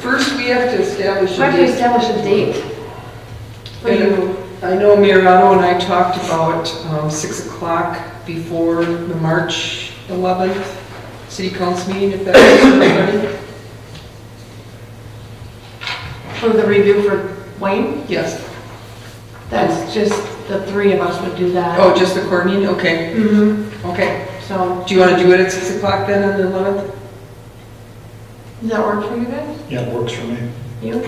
First, we have to establish Why a do you date. establish a date? for you? And I know Mirano and I talked about um, 6 o'clock before the March 11th city council meeting, if that works for everybody. For the review for Wayne? Yes. That's just, the three of us would do that. Oh, just the court meeting? Okay, hmm okay. so, Do you want to do it at 6 o'clock then on the 11th? does that work for you guys? Yeah, it works for me. You?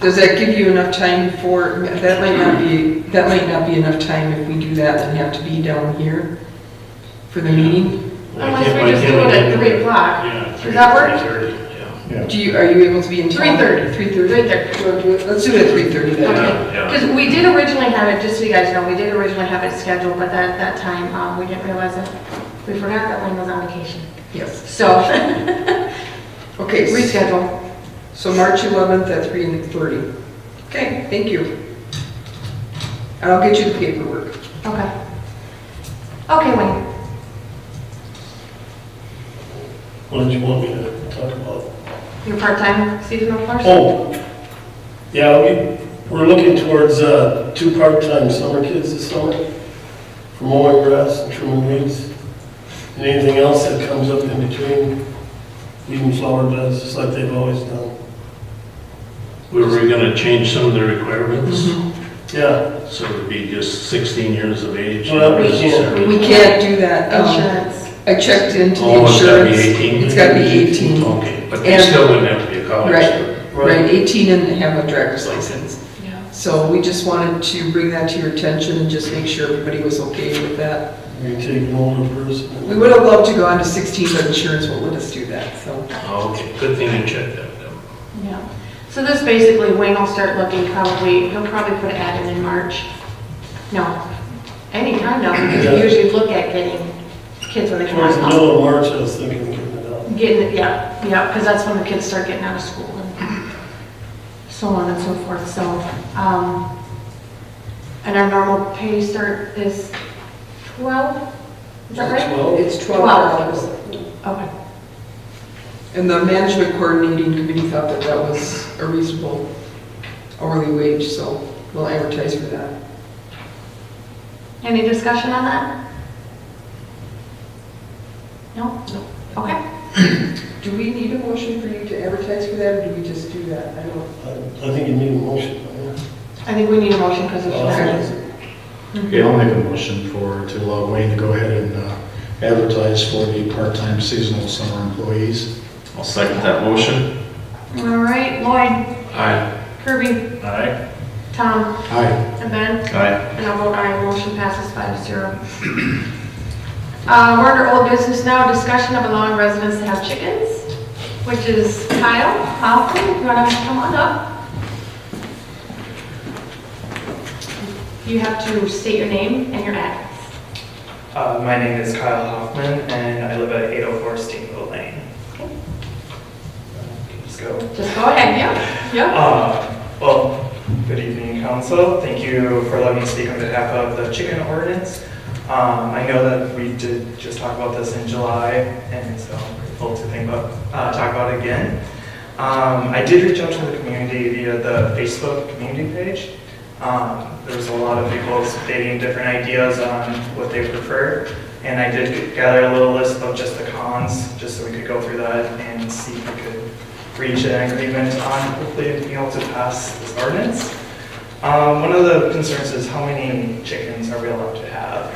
Does that give you enough time for, that might not be, that might not be enough time if we do that and have to be down here for the meeting. Unless we just do it at three o'clock. Yeah. Does that work? Three thirty, yeah. Yeah. Do you, are you able to be in town? 3:30? 3:30. Right there. Do you wanna do it? Let's do it at 3:30 then. Yeah, yeah. Because we did originally have it, just so you guys know, we did originally have it scheduled, but at that time, um, we didn't realize it. We forgot that Wayne was on vacation. Yes. So, Okay. s- reschedule. So March 11th at 3:30. Okay, thank you. And I'll get you the paperwork. Okay. Okay, Wayne. What did you want me to talk about? Your part-time seasonal person? Oh, yeah, we, we're looking towards, uh, two part-time summer kids this summer for mowing grass and trimming weeds. And anything else that comes up in between, leaving flower beds, just like they've always done. We were gonna change some of the requirements, Mm-hmm. Yeah, so it'd be just 16 years of age. Well, we can't- We can't do that. Oh. um, Insurance. I checked into the Oh, it's gotta be insurance. 18? It's gotta be 18. Okay, but they And- still wouldn't have to be a college Right. student. Right, right. 18 and have a driver's license. Yeah. So we just wanted to bring that to your attention and just make sure everybody was okay with that. We take an older We person. would have loved to go on to 16, but insurance won't let us do that, so. Okay, good thing you checked that out. Yeah. So this basically, Wayne will start looking probably, he'll probably put an ad in in March. No, anytime now, because we Yeah. usually look at getting kids when they come Towards the out. middle of March, I was thinking of giving it up. Getting, it- yeah, yeah, because that's when the kids start getting out of school and so on and so forth, so. um, And our normal pay start is 12? Is that right? Twelve? It's $12. Okay. And the management coordinating committee thought that that was a reasonable hourly wage, so we'll advertise for that. Any discussion on that? No? No. Okay. Do we need a motion for you to advertise for that, or do we just do that? I don't. I I think you need a motion. right? I think we need a motion because of that. Okay, I'll make a motion for, to allow Wayne to go ahead and uh, advertise for the part-time seasonal summer employees. I'll second that motion. All right, Lloyd, Aye. Kirby, Aye. Tom, Aye. and Ben, Aye. and I'll vote aye, motion passes five to zero. Uh, we're under old business now, discussion of allowing residents to have chickens, which is Kyle, Malcolm, you wanna come on up? You have to state your name and your address. Uh, my name is Kyle Hoffman, and I live at 804 Steamboat Lane. Let's go. Just go ahead, yeah, yeah. Uh, Well, good evening, council. Thank you for letting me speak on behalf of the chicken ordinance. Um, I know that we did just talk about this in July, and so I'm grateful to think about, uh, talk about it again. Um, I did reach out to the community via the Facebook community page. Um, There was a lot of people stating different ideas on what they prefer, and I did gather a little list of just the cons, just so we could go through that and see if we could reach an agreement on hopefully being able to pass this ordinance. Um, One of the concerns is how many chickens are we allowed to have?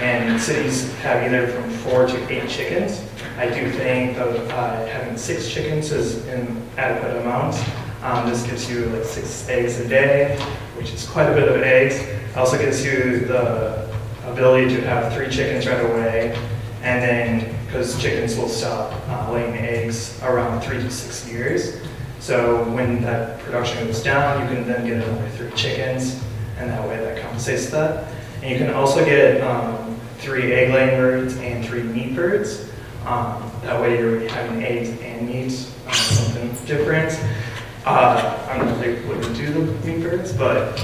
And cities have either from four to eight chickens. I do think that uh, having six chickens is an adequate amount. Um, This gives you like six eggs a day, which is quite a bit of eggs. Also gives you the ability to have three chickens right away. And then, because chickens will stop uh, laying eggs around three to six years. So when that production goes down, you can then get another three chickens, and that way that compensates that. And you can also get um, three egg laying birds and three meat birds. Um, that way you're having eggs and meat, um, something different. Uh, I don't know if they would do the meat birds, but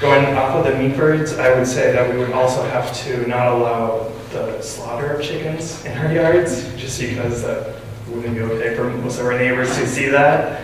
going off of the meat birds, I would say that we would also have to not allow the slaughter of chickens in our yards, just because that wouldn't be okay for most of our neighbors to see that.